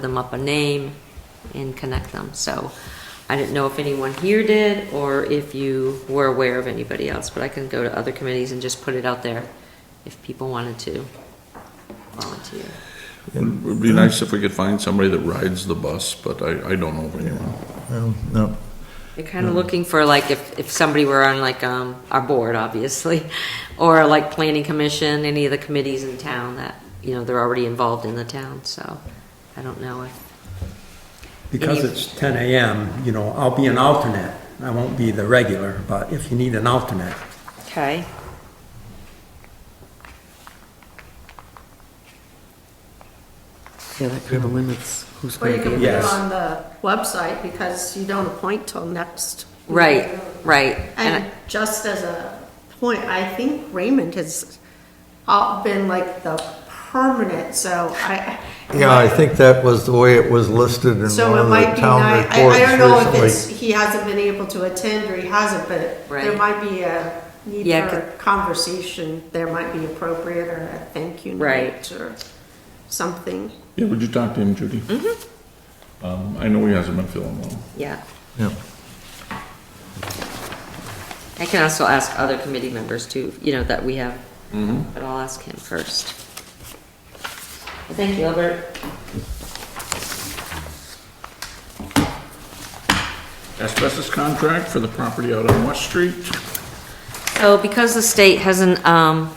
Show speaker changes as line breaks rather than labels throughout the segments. them up a name and connect them. So I didn't know if anyone here did or if you were aware of anybody else, but I can go to other committees and just put it out there if people wanted to volunteer.
It would be nice if we could find somebody that rides the bus, but I, I don't know of anyone.
Well, no,
They're kind of looking for like if, if somebody were on like um, our board, obviously, or like planning commission, any of the committees in town that, you know, they're already involved in the town, so I don't know if,
Because
Any-
it's 10 AM, you know, I'll be an alternate. I won't be the regular, but if you need an alternate,
okay.
Yeah, that kind of limits who's
Or you
going
can
to
put
be.
it
Yes.
on the website, because you don't appoint till next.
Right, right. And
And just as a point, I think Raymond has all been like the permanent, so I.
yeah, I think that was the way it was listed in one of
So it
the
might be
town
nice, I, I don't know if
reports
it's,
recently.
he hasn't been able to attend or he hasn't, but
Right.
there might be a need
Yeah,
for
'cause-
a conversation, there might be appropriate or a thank you
Right.
note or something.
Yeah, would you talk to him, Judy? Um, I know he hasn't been feeling well.
Yeah.
Yeah.
I can also ask other committee members too, you know, that we have, but I'll ask him first. Well, Thank you, Albert.
Asbestos contract for the property out on West Street.
So because the state hasn't, um,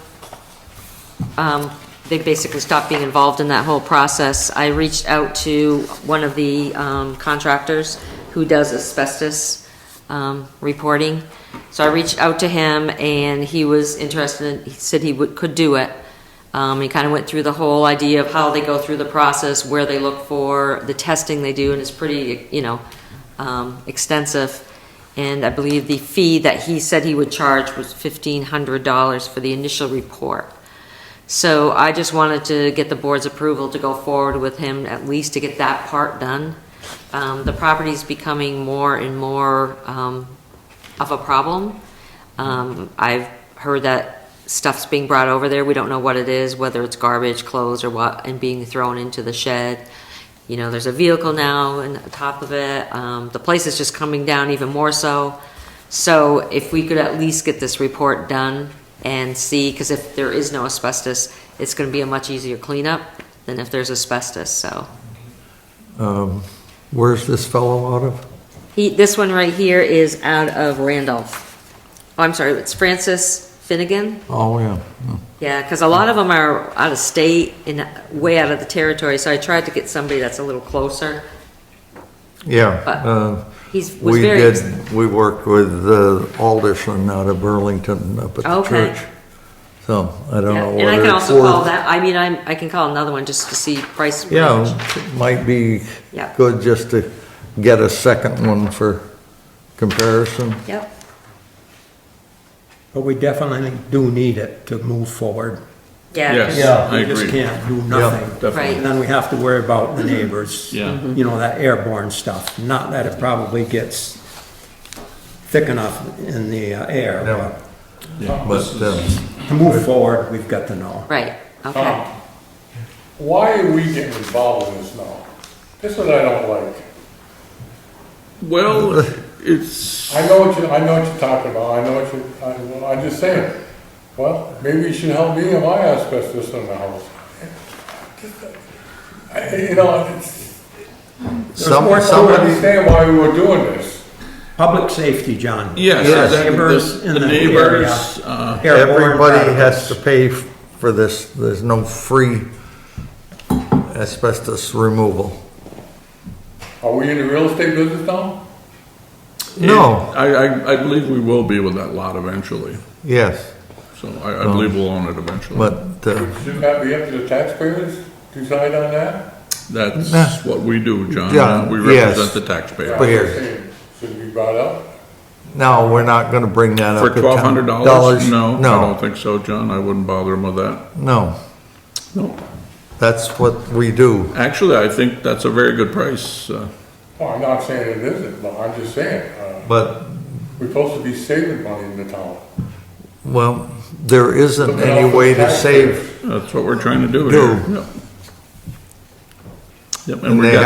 um, they basically stopped being involved in that whole process, I reached out to one of the um, contractors who does asbestos, um, reporting. So I reached out to him and he was interested, he said he would, could do it. Um, he kind of went through the whole idea of how they go through the process, where they look for, the testing they do, and it's pretty, you know, um, extensive. And I believe the fee that he said he would charge was fifteen hundred dollars for the initial report. So I just wanted to get the board's approval to go forward with him, at least to get that part done. Um, the property's becoming more and more, um, of a problem. Um, I've heard that stuff's being brought over there, we don't know what it is, whether it's garbage, clothes, or what, and being thrown into the shed. You know, there's a vehicle now on top of it, um, the place is just coming down even more so. So if we could at least get this report done and see, because if there is no asbestos, it's gonna be a much easier cleanup than if there's asbestos, so.
Um, Where's this fellow out of?
He, this one right here is out of Randolph. Oh, I'm sorry, it's Francis Finnegan.
Oh, yeah.
Yeah, because a lot of them are out of state and way out of the territory, so I tried to get somebody that's a little closer.
Yeah,
But
uh,
He's, was
we
very.
did, we worked with uh, Alderson out of Burlington up at the
Okay.
church. So I don't
Yeah,
know
And I
whether
can
it's
also call
worth.
that, I mean, I'm, I can call another one just to see price.
Yeah,
range.
it might be
Yeah.
good just to get a second one for comparison.
Yep,
but we definitely do need it to move forward.
yeah. 'cause-
Yes. I
We just
agree.
can't do nothing.
Definitely. Mm-hmm.
And then we have to worry about the neighbors.
Yeah. Mhm.
You know, that airborne stuff. Not that it probably gets thick enough in the uh, air,
Yeah.
But, um,
but to move forward, we've got to know.
Right, okay.
Why are we getting involved in this now? That's what I don't like.
Well,
Uh,
it's,
I know what you, I know what you're talking about, I know what you, I, well, I'm just saying, well, maybe you should help me in my asbestos in the house. I- You know, it's,
some-
more to it.
I don't
somebody,
understand why we were doing this.
Public safety, John.
yes,
Yes.
that-
Neighbors
the
in
the
the area.
neighbors, uh,
Airborne
Everybody has
particles.
to pay f- for this, there's no free asbestos removal.
Are we in the real estate business now?
No,
I, I, I believe we will be with that lot eventually,
yes,
so I, I believe we'll own it eventually.
Um, but, uh,
Shouldn't that be up to the taxpayers to decide on that?
Nah.
That's what we do, John, Uh,
John,
we
yes.
represent the
Yeah,
taxpayer.
I'm
But here-
just saying, Should it be brought up?
no, we're not gonna bring that up.
For
to
twelve hundred
uh, town-
dollars? No, I don't
No,
think so, John, I wouldn't bother him with that.
no,
No,
that's what we do.
actually, I think that's a very good price, uh,
Well, I'm not saying it isn't, but I'm just saying, uh,
But,
we're supposed to be saving money in the town.
well, there isn't
Looking out
any
for
way
the
to
taxpayers.
save,
that's what we're trying to do
Do.
here. Yeah. Yep,
And
we
they
got-